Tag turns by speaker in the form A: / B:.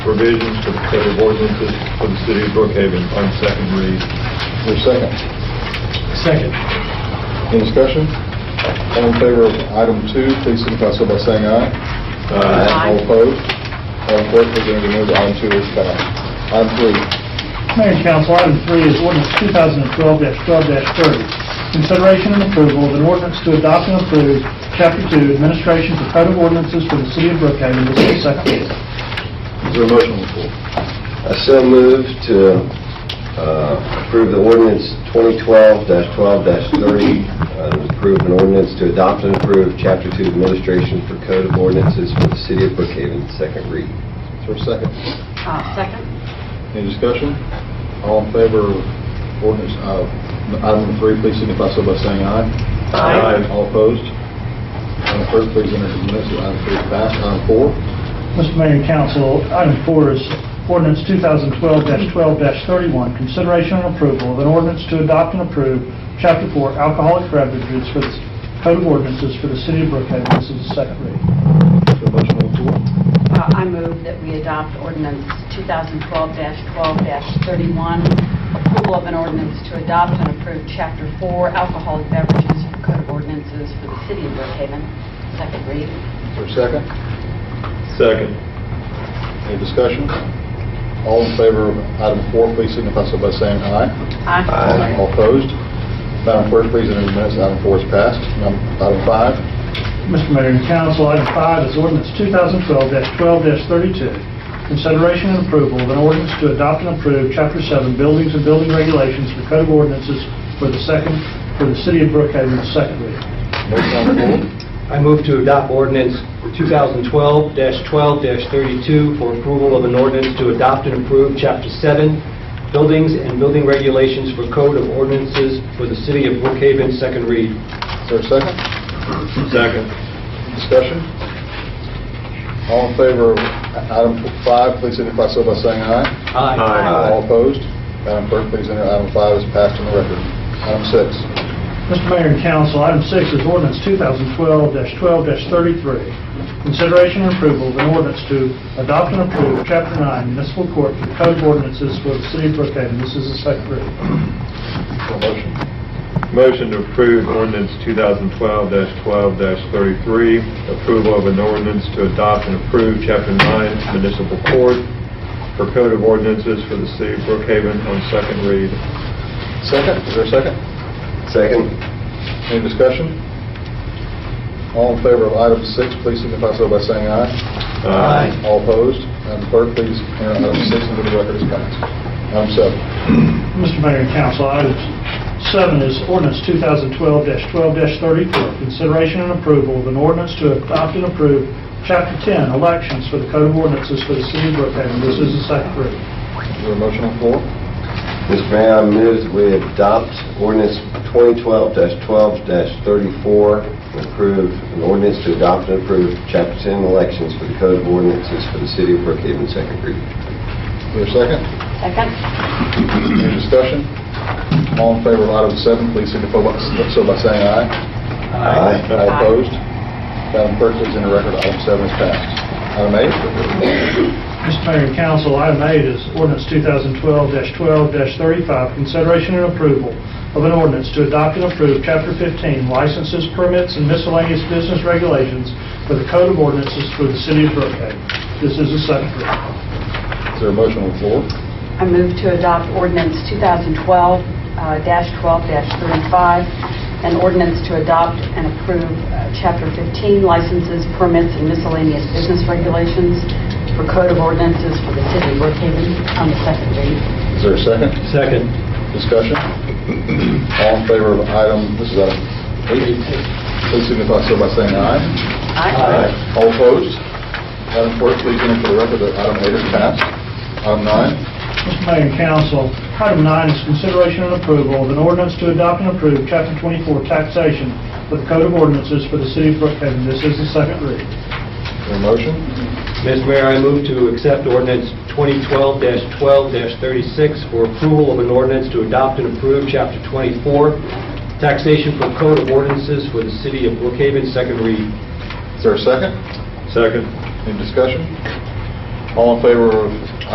A: provisions for the set of ordinances for the city of Brookhaven on second read.
B: Your second.
C: Second.
B: Any discussion? All in favor of item two, please signify so by saying aye.
A: Uh,
B: All opposed? Madam Clerk, please enter the that item two is passed. Item three,
C: Mayor and Council, item three is ordinance 2012-12-30. Consideration and approval of an ordinance to adopt and approve Chapter 2 Administration for Code of Ordinances for the City of Brookhaven, this is second reading.
A: Is there a motion on the floor?
D: I so move to uh, approve the ordinance 2012-12-30, uh, approve an ordinance to adopt and approve Chapter 2 Administration for Code of Ordinances for the City of Brookhaven, second read.
B: is there a second?
E: Uh, Second.
B: Any discussion? All in favor of ordinance, uh, item number three, please signify so by saying aye.
A: Aye.
B: All opposed? Madam Clerk, please enter the minutes of item three is passed. Item four,
C: Mr. Mayor and Council, item four is ordinance 2012-12-31, consideration and approval of an ordinance to adopt and approve Chapter 4 Alcoholic Beverages for the Code of Ordinances for the City of Brookhaven, this is the second reading.
B: is there a motion on the floor?
E: Uh, I move that we adopt ordinance 2012-12-31, approval of an ordinance to adopt and approve Chapter 4 alcoholic beverages for code of ordinances for the city of Brookhaven, second read.
B: Is there a second?
A: Second.
B: Any discussion? All in favor of item four, please signify so by saying aye.
E: Aye.
B: All opposed? Madam Clerk, please enter the minutes. Item four is passed. Num- Item five,
C: Mr. Mayor and Council, item five is ordinance 2012-12-32, consideration and approval of an ordinance to adopt and approve Chapter 7 Buildings and Building Regulations for Code of Ordinances for the second, for the City of Brookhaven, the second reading.
B: motion on the floor.
F: I move to adopt ordinance 2012-12-32 for approval of an ordinance to adopt and approve Chapter 7, Buildings and Building Regulations for Code of Ordinances for the City of Brookhaven, second read.
B: Is there a second?
A: Second.
B: Discussion? All in favor of i- item five, please signify so by saying aye.
A: Aye.
B: All opposed? Madam Clerk, please enter item five is passed on the record. Item six,
C: Mr. Mayor and Council, item six is ordinance 2012-12-33, consideration and approval of an ordinance to adopt and approve Chapter 9 Municipal Court for Code of Ordinances for the City of Brookhaven. This is the second reading.
B: for motion.
A: Motion to approve ordinance 2012-12-33, approval of an ordinance to adopt and approve Chapter 9 Municipal Court for Code of Ordinances for the City of Brookhaven on second read.
B: Second, is there a second?
D: Second.
B: Any discussion? All in favor of item six, please signify so by saying aye.
A: Aye.
B: All opposed? Madam Clerk, please enter item six into the record as passed. Item seven,
C: Mr. Mayor and Council, item seven is ordinance 2012-12-34, consideration and approval of an ordinance to adopt and approve Chapter 10, elections for the Code of Ordinances for the City of Brookhaven. This is the second reading.
B: is there a motion on the floor?
D: Mr. Mayor, I move that we adopt ordinance 2012-12-34, and approve an ordinance to adopt and approve Chapter 10 Elections for the Code of Ordinances for the City of Brookhaven, second read.
B: Is there a second?
E: Second.
B: Any discussion? All in favor of item seven, please signify by- so by saying aye.
D: Aye.
B: All opposed? Madam Clerk, please enter record item seven is passed. Item eight,
C: Mr. Mayor and Council, item eight is ordinance 2012-12-35, consideration and approval of an ordinance to adopt and approve Chapter 15, licenses, permits, and miscellaneous business regulations for the Code of Ordinances for the City of Brookhaven. This is the second reading.
B: is there a motion on the floor?
E: I move to adopt ordinance uh, 2012-12-35, an ordinance to adopt and approve uh, Chapter 15 licenses, permits, and miscellaneous business regulations for Code of Ordinances for the City of Brookhaven on the second read.
B: Is there a second?
F: Second.
B: Discussion? All in favor of item, this is item eight, please signify so by saying aye.
E: Aye.
B: All opposed? Madam Clerk, please enter for the record that item eight is passed. Item nine,
C: Mr. Mayor and Council, item nine is consideration and approval of an ordinance to adopt and approve Chapter 24 taxation for the Code of Ordinances for the City of Brookhaven. This is the second reading.
B: your motion,
F: Mr. Mayor, I move to accept ordinance 2012-12-36 for approval of an ordinance to adopt and approve Chapter 24, Taxation for Code of Ordinances for the City of Brookhaven, second read.
B: is there a second?
A: Second.
B: Any discussion? All in favor of